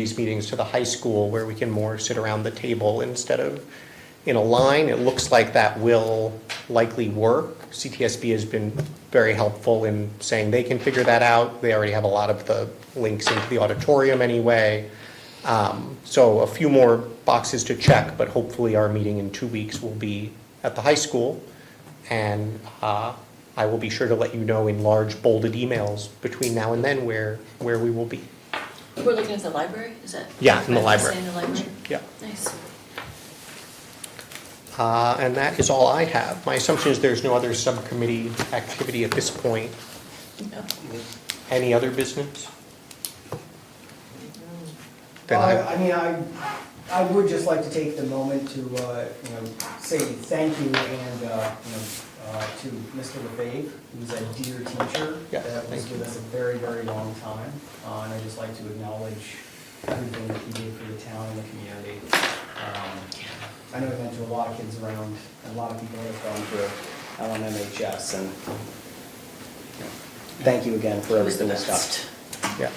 these meetings to the high school where we can more sit around the table instead of in a line. It looks like that will likely work. CTSB has been very helpful in saying they can figure that out. They already have a lot of the links into the auditorium anyway. Um, So a few more boxes to check, but hopefully our meeting in two weeks will be at the high school. And uh, I will be sure to let you know in large bolded emails between now and then where, where we will be. We're looking at the library, is that? Yeah, in the Right, library. In the library? Yeah. Nice. Uh, And that is all I have. My assumption is there's no other subcommittee activity at this point. No. Any other business? Then Well, I, I I mean, I, I would just like to take the moment to, uh, you know, say thank you and, uh, you know, uh, to Mr. LeBave, who's a dear teacher. Yeah, That was thank you. with us a very, very long time. Uh, And I'd just like to acknowledge everything that he did for the town and the community. Um, I know he went to a lot of kids around, and a lot of people that have gone through um, LMMHS, and you know, thank you again for It was the everything that's done. best. yeah,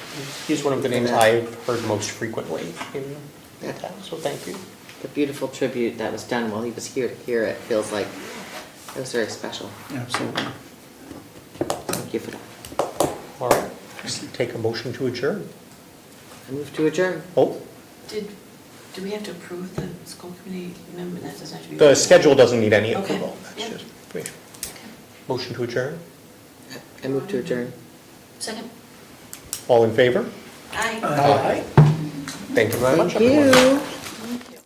he's one of the names I've heard most frequently in in town, so thank you. the beautiful tribute that was done while he was here to hear it feels like it was very special. Absolutely. Thank you for that. All right, take a motion to adjourn. I move to adjourn. Oh, Did, do we have to approve the school committee member? That doesn't have to be. the schedule doesn't need any Okay, approval. That's yeah. just information. Okay. Motion to adjourn. I move to adjourn. Second? All in favor? Aye. Uh, Aye. Thank you very much, Thank everyone. you.